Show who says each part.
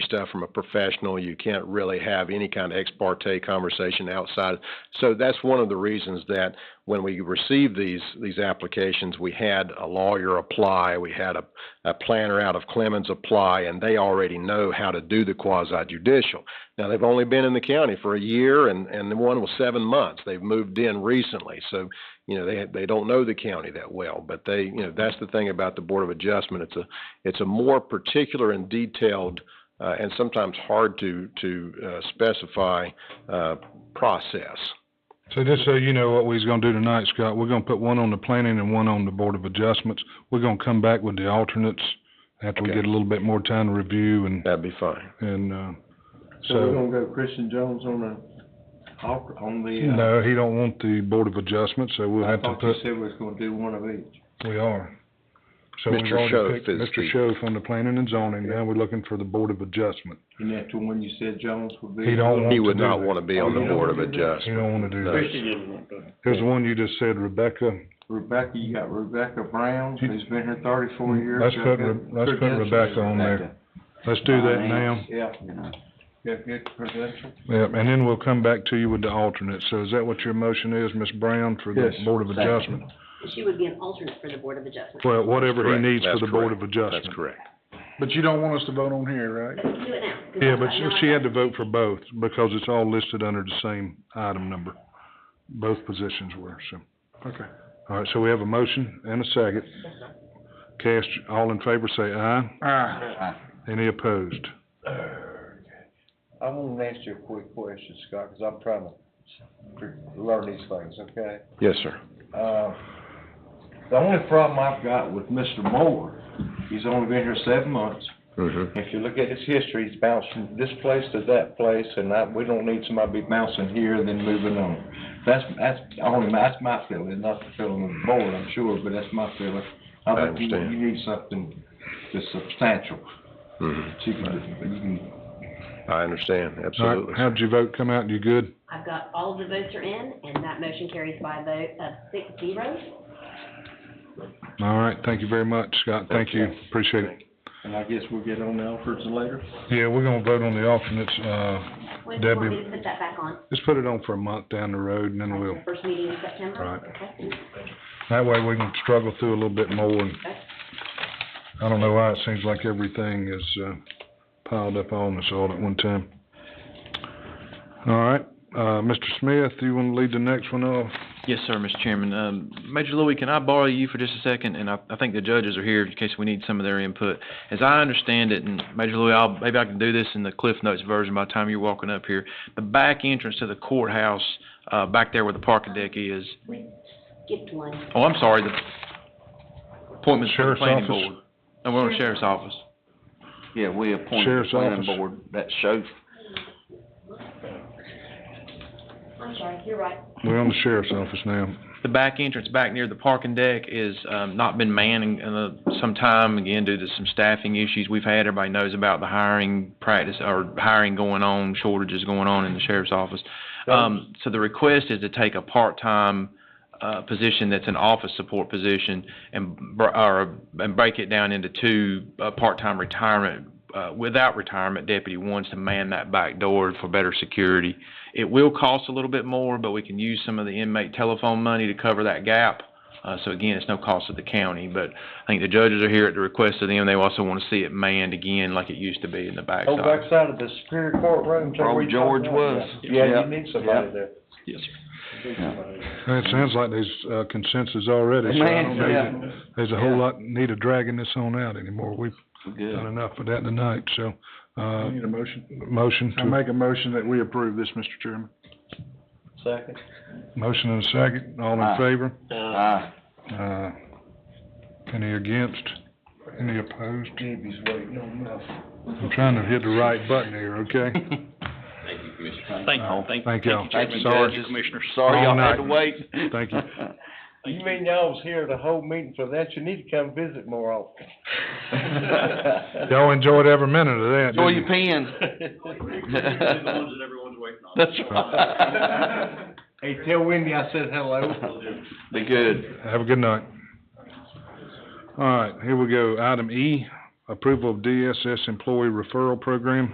Speaker 1: stuff from a professional. You can't really have any kind of ex parte conversation outside. So that's one of the reasons that when we received these these applications, we had a lawyer apply, we had a, a planner out of Clemens apply, and they already know how to do the quasi judicial. Now they've only been in the county for a year, and and the one was seven months. They've moved in recently, so you know they they don't know the county that well. But they you know that's the thing about the Board of Adjustment. It's a it's a more particular and detailed. Uh, and sometimes hard to to uh, specify uh, process.
Speaker 2: So just so you know what we's gonna do tonight, Scott, we're gonna put one on the planning and one on the Board of Adjustments. We're gonna come back with the alternates after we
Speaker 1: Okay.
Speaker 2: get a little bit more time to review and,
Speaker 1: That'd be fine.
Speaker 2: and, uh,
Speaker 3: So we're
Speaker 2: so,
Speaker 3: gonna go Christian Jones on the, off- on the, uh,
Speaker 2: no, he don't want the Board of Adjustments, so we'll
Speaker 3: I
Speaker 2: have to
Speaker 3: thought you
Speaker 2: put,
Speaker 3: said we was gonna do one of each.
Speaker 2: we are. So
Speaker 1: Mr.
Speaker 2: we've
Speaker 1: Schoaf
Speaker 2: already picked
Speaker 1: is
Speaker 2: Mr.
Speaker 1: the-
Speaker 2: Schoaf on the planning and zoning, now we're looking for the Board of Adjustment.
Speaker 3: And that's the one you said Jones would be.
Speaker 2: He don't want
Speaker 1: He
Speaker 2: to
Speaker 1: would
Speaker 2: do
Speaker 1: not
Speaker 2: that.
Speaker 1: want to be on the Board of
Speaker 2: He
Speaker 1: Adjustment.
Speaker 2: don't wanna do
Speaker 1: No.
Speaker 2: that. Here's the one you just said, Rebecca,
Speaker 3: Rebecca, you got Rebecca Brown, who's been here thirty-four
Speaker 2: Mm-hmm.
Speaker 3: years.
Speaker 2: Let's put
Speaker 3: Got
Speaker 2: Re-
Speaker 3: good
Speaker 2: let's put
Speaker 3: credentials.
Speaker 2: Rebecca on there. let's do that now.
Speaker 3: Yeah. Got good credentials.
Speaker 2: Yep, and then we'll come back to you with the alternate. So is that what your motion is, Ms. Brown, for the
Speaker 3: Yes.
Speaker 2: Board of Adjustment?
Speaker 4: She would be an alternate for the Board of Adjustment.
Speaker 2: Well, whatever he
Speaker 1: Correct.
Speaker 2: needs for
Speaker 1: That's
Speaker 2: the Board of
Speaker 1: correct.
Speaker 2: Adjustment.
Speaker 1: That's correct.
Speaker 5: But you don't want us to vote on here, right?
Speaker 4: But we can do it now. 'cause
Speaker 2: Yeah,
Speaker 4: I-
Speaker 2: but
Speaker 4: I
Speaker 2: she-
Speaker 4: know I
Speaker 2: she had
Speaker 4: got-
Speaker 2: to vote for both because it's all listed under the same item number. Both positions were, so.
Speaker 5: Okay.
Speaker 2: All right, so we have a motion and a second. Cast, all in favor, say aye.
Speaker 5: Ah,
Speaker 2: Any opposed?
Speaker 3: I wanna ask you a quick question, Scott, cause I'm trying to learn these things, okay?
Speaker 1: Yes, sir.
Speaker 3: Uh, the only problem I've got with Mr. Moore, he's only been here seven months.
Speaker 1: Mm-hmm.
Speaker 3: If you look at his history, he's bounced from this place to that place, and I, we don't need somebody bouncing here and then moving on. That's, that's only, that's my feeling, not the feeling of the board, I'm sure, but that's my feeling.
Speaker 1: I
Speaker 3: I think you,
Speaker 1: understand.
Speaker 3: you need something that's substantial,
Speaker 1: Mm-hmm.
Speaker 3: that you can, you can,
Speaker 1: I understand,
Speaker 2: All
Speaker 1: absolutely.
Speaker 2: right, how'd your vote come out? You good?
Speaker 4: I've got, all of the votes are in, and that motion carries by a vote of six zero.
Speaker 2: All right, thank you very much, Scott. Thank you, appreciate it.
Speaker 3: and I guess we'll get on the Alfreds later.
Speaker 2: Yeah, we're gonna vote on the alternates, uh,
Speaker 4: When do you want me
Speaker 2: Debbie-
Speaker 4: to put that back on?
Speaker 2: Just put it on for a month down the road and then
Speaker 4: Like
Speaker 2: we'll,
Speaker 4: the First meeting in September?
Speaker 2: Right.
Speaker 4: Okay.
Speaker 2: that way we can struggle through a little bit more and I don't know why it seems like everything is, uh, piled up on us all at one time. All right, uh, Mr. Smith, you wanna lead the next one off?
Speaker 6: Yes, sir, Mr. Chairman. Um, Major Louis, can I borrow you for just a second? And I, I think the judges are here in case we need some of their input. As I understand it, and Major Louis, I'll, maybe I can do this in the Cliff Notes version by the time you're walking up here. The back entrance to the courthouse, uh, back there where the parking deck is,
Speaker 4: We skipped one.
Speaker 6: oh, I'm sorry, the appointments for the
Speaker 2: Sheriff's
Speaker 6: planning
Speaker 2: office?
Speaker 6: board. No, we're on sheriff's office.
Speaker 7: Yeah, we appointed
Speaker 2: Sheriff's
Speaker 7: the planning
Speaker 2: office.
Speaker 7: board, that shows
Speaker 4: I'm sorry, you're right.
Speaker 2: We're on the sheriff's office now.
Speaker 6: The back entrance back near the parking deck is, um, not been manned in, in uh, some time, again, due to some staffing issues we've had. Everybody knows about the hiring practice, or hiring going on, shortages going on in the sheriff's office. Um, so the request is to take a part-time, uh, position that's an office support position and, br- or, and break it down into two, uh, part-time retirement, uh, without retirement deputy ones to man that back door for better security. It will cost a little bit more, but we can use some of the inmate telephone money to cover that gap. Uh, so again, it's no cost to the county, but I think the judges are here at the request of them. They also want to see it manned again like it used to be in the
Speaker 3: Go
Speaker 6: backside.
Speaker 3: backside Oh, of the Superior Court Room. is that where
Speaker 7: Where
Speaker 3: you talking
Speaker 7: George
Speaker 3: about?
Speaker 7: was.
Speaker 3: Yeah,
Speaker 7: Yeah.
Speaker 3: you need somebody there.
Speaker 6: Yes, sir.
Speaker 2: It sounds like there's, uh, consensus already, so I don't
Speaker 7: Man,
Speaker 2: know.
Speaker 7: yeah,
Speaker 2: There's a whole lot need of dragging this on out anymore. We've
Speaker 7: we're
Speaker 2: done
Speaker 7: good.
Speaker 2: enough of that tonight, so,
Speaker 5: I
Speaker 2: uh,
Speaker 5: need a motion.
Speaker 2: motion
Speaker 5: I
Speaker 2: to
Speaker 5: make a motion that we approve this, Mr. Chairman.
Speaker 3: Second.
Speaker 2: Motion and a second, all in
Speaker 7: Aye.
Speaker 2: favor?
Speaker 7: Aye.
Speaker 2: Uh, any against? Any opposed?
Speaker 3: Debbie's waiting on us.
Speaker 2: I'm trying to hit the right button here, okay?
Speaker 8: Thank
Speaker 2: Uh,
Speaker 8: you, thank you.
Speaker 2: Thank y'all.
Speaker 7: Thank you,
Speaker 2: Sorry.
Speaker 7: judges.
Speaker 8: Commissioners.
Speaker 7: Sorry
Speaker 2: All
Speaker 7: y'all had to
Speaker 2: night.
Speaker 7: wait.
Speaker 2: Thank you.
Speaker 3: You mean y'all was here the whole meeting for that? You need to come visit more often.
Speaker 2: Y'all enjoyed every minute of that,
Speaker 7: Enjoy
Speaker 2: didn't you?
Speaker 7: your pen.
Speaker 8: The ones that everyone's waiting on.
Speaker 7: That's right.
Speaker 3: Hey, tell Wendy I said hello.
Speaker 7: Be good.
Speaker 2: Have a good night. All right, here we go. Item E, approval of DSS employee referral program.